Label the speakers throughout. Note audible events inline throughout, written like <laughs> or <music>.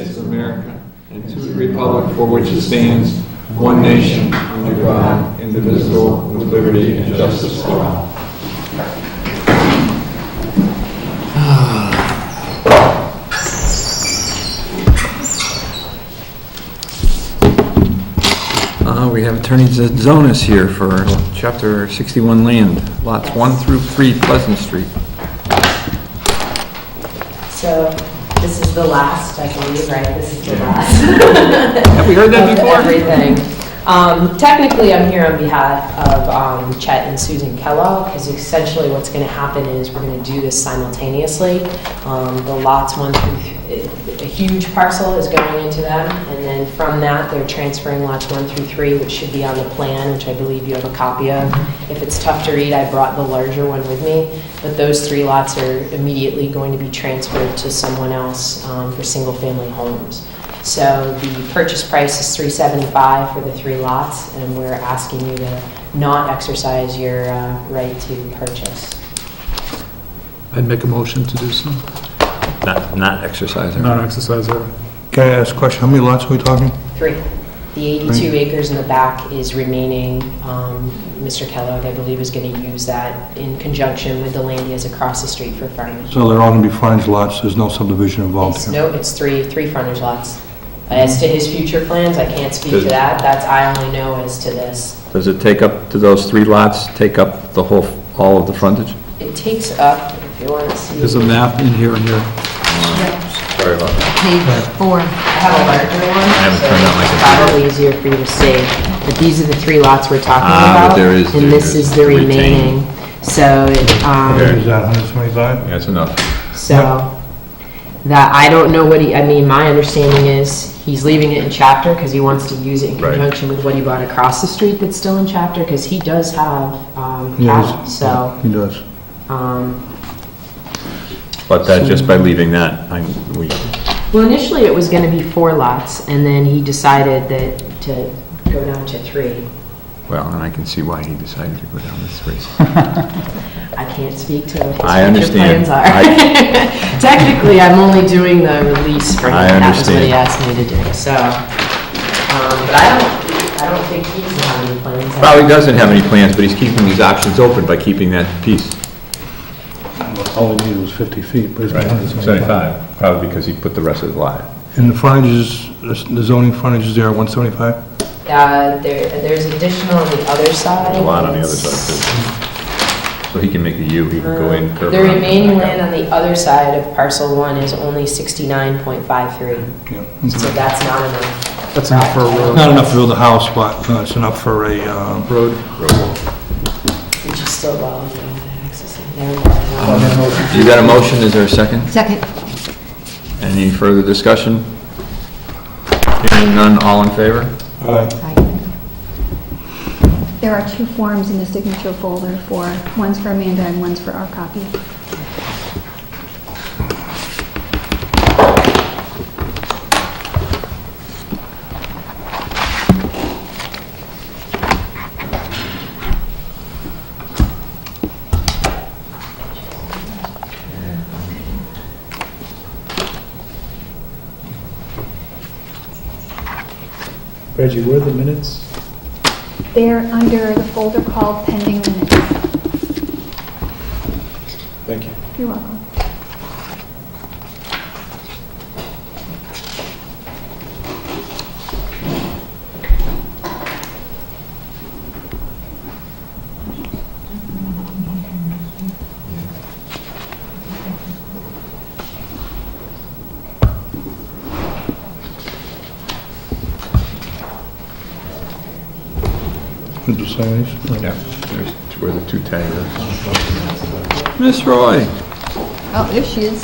Speaker 1: States of America and to the republic for which it stands, one nation, under God, indivisible, with liberty and justice for all. Ah. Uh, We have Attorney Zonas here for Chapter 61 Land, Lots 1 through 3 Pleasant Street.
Speaker 2: So this is the last, I believe, right? This is the last.
Speaker 1: Have we heard
Speaker 2: <laughs>
Speaker 1: that
Speaker 2: of
Speaker 1: before?
Speaker 2: Everything. Um, Technically, I'm here on behalf of um, Chet and Susan Kellogg, because essentially what's going to happen is we're going to do this simultaneously. Um, The lots one through, a huge parcel is going into them, and then from that, they're transferring lots one through three, which should be on the plan, which I believe you have a copy of. If it's tough to read, I brought the larger one with me, but those three lots are immediately going to be transferred to someone else um, for single-family homes. So the purchase price is 375 for the three lots, and we're asking you to not exercise your uh, right to purchase.
Speaker 3: I'd make a motion to do so.
Speaker 1: Not not exercising.
Speaker 3: Not exercise that.
Speaker 4: Can I ask a question? How many lots are we talking?
Speaker 2: Three. The 82 acres in the back is remaining. Um, Mr. Kellogg, I believe, is going to use that in conjunction with the land he has across the street for frontage.
Speaker 4: So they're all going to be frontage lots, there's no subdivision involved
Speaker 2: It's-
Speaker 4: here?
Speaker 2: No, it's three, three frontage lots. As to his future plans, I can't speak to
Speaker 1: Does-
Speaker 2: that. That's, I only know as to this.
Speaker 1: Does it take up, do those three lots take up the whole, all of the frontage?
Speaker 2: It takes up, if you want to see.
Speaker 3: There's a map in here and here.
Speaker 1: Sorry about that.
Speaker 5: Page four.
Speaker 2: I have a larger one,
Speaker 1: haven't
Speaker 2: so
Speaker 1: turned on my
Speaker 2: it's probably easier for you to see. But these are the three lots we're talking
Speaker 1: Ah,
Speaker 2: about.
Speaker 1: but there is-
Speaker 2: And this
Speaker 1: there
Speaker 2: is
Speaker 1: is
Speaker 2: the
Speaker 1: retaining.
Speaker 2: remaining. So, it,
Speaker 1: There.
Speaker 2: um,
Speaker 4: Is that 175?
Speaker 1: That's enough.
Speaker 2: so that, I don't know what he, I mean, my understanding is he's leaving it in chapter because he wants to use it in
Speaker 1: Right.
Speaker 2: conjunction with what he bought across the street that's still in chapter because he does have, um,
Speaker 4: Yeah, he's-
Speaker 2: cattle. so,
Speaker 4: He does.
Speaker 2: um,
Speaker 1: But that, just by leaving that, I'm, we,
Speaker 2: Well, initially it was gonna be four lots, and then he decided that to go down to three.
Speaker 1: well, and I can see why he decided to go down this race.
Speaker 2: I can't speak to what
Speaker 1: I
Speaker 2: his future
Speaker 1: understand.
Speaker 2: plans are. <laughs> Technically, I'm only doing the release for him.
Speaker 1: I
Speaker 2: That was what
Speaker 1: understand.
Speaker 2: he asked me to do, so. um, But I don't, I don't think he's having any plans.
Speaker 1: Well, he doesn't have any plans, but he's keeping these options open by keeping that piece.
Speaker 4: All he needed was 50 feet, but it's 175.
Speaker 1: Seventy-five, probably because he put the rest of the lot.
Speaker 4: And the frontage is, the zoning frontage is there at 175?
Speaker 2: Uh, there, there's additional on the other side.
Speaker 1: There's a lot on the other side, too. So he can make a U, he can go in,
Speaker 2: Um,
Speaker 1: curve
Speaker 2: The
Speaker 1: around, come
Speaker 2: remaining
Speaker 1: back out.
Speaker 2: land on the other side of parcel one is only sixty-nine point five three, so
Speaker 4: Yeah.
Speaker 2: that's not enough.
Speaker 3: Mm-hmm. That's enough for a road.
Speaker 4: Not enough to build a house, but uh, it's enough for a, uh,
Speaker 3: Road.
Speaker 2: Which is still well, you know, accessing, never
Speaker 3: Um,
Speaker 2: mind.
Speaker 1: You got a motion, is there a second?
Speaker 5: Second.
Speaker 1: Any further discussion? Hearing none, all in favor?
Speaker 4: Aye.
Speaker 5: There are two forms in the signature folder for, one's for Amanda and one's for our copy.
Speaker 3: Reggie, where are the minutes?
Speaker 5: They're under the folder called pending minutes.
Speaker 3: Thank you.
Speaker 5: You're welcome.
Speaker 4: Did you sign these?
Speaker 1: Yeah, there's where the two tags are. Miss Roy?
Speaker 5: Oh, there she is.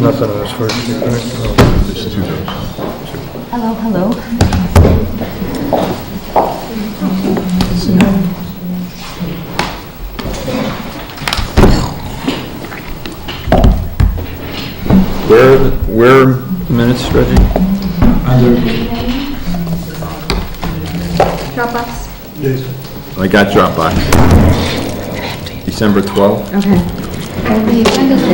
Speaker 4: Nothing on this first.
Speaker 1: There's two those.
Speaker 5: Hello, hello.
Speaker 1: Where, where minutes, Reggie?
Speaker 5: Dropbox.
Speaker 1: I got Dropbox. December 12th?
Speaker 5: Okay. The agenda's